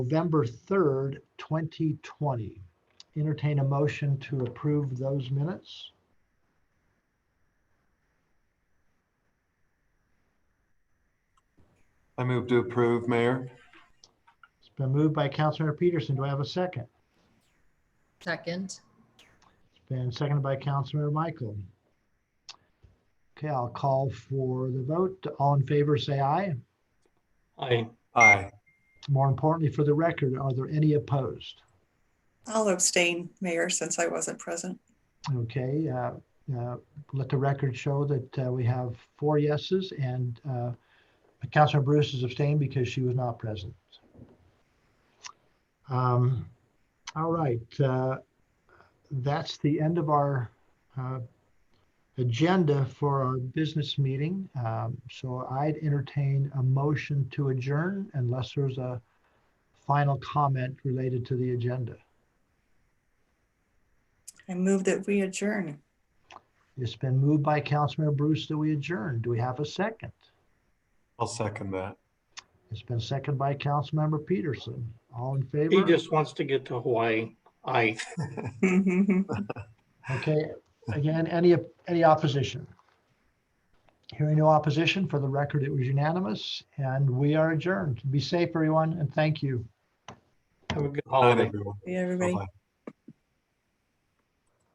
November 3rd, 2020. Entertain a motion to approve those minutes. I move to approve, Mayor. It's been moved by Councilmember Peterson. Do I have a second? Second, It's been seconded by Councilmember Michael. Okay, I'll call for the vote. All in favor, say aye. Aye. Aye. More importantly, for the record, are there any opposed? I'll abstain, Mayor, since I wasn't present. Okay, uh, uh, let the record show that uh, we have four yeses and uh, Councilor Bruce is abstained because she was not present. Um, All right, uh, that's the end of our uh, agenda for our business meeting. Um, So I'd entertain a motion to adjourn unless there's a final comment related to the agenda. I move that we adjourn. It's been moved by Councilmember Bruce that we adjourn. Do we have a second? I'll second that. It's been seconded by Councilmember Peterson. All in He favor? just wants to get to Hawaii. Aye. Okay, again, any, any opposition? Hearing no opposition, for the record, it was unanimous, and we are adjourned. Be safe, everyone, and thank you. Have a Night, good holiday. everyone. Yeah, everybody. Bye-bye.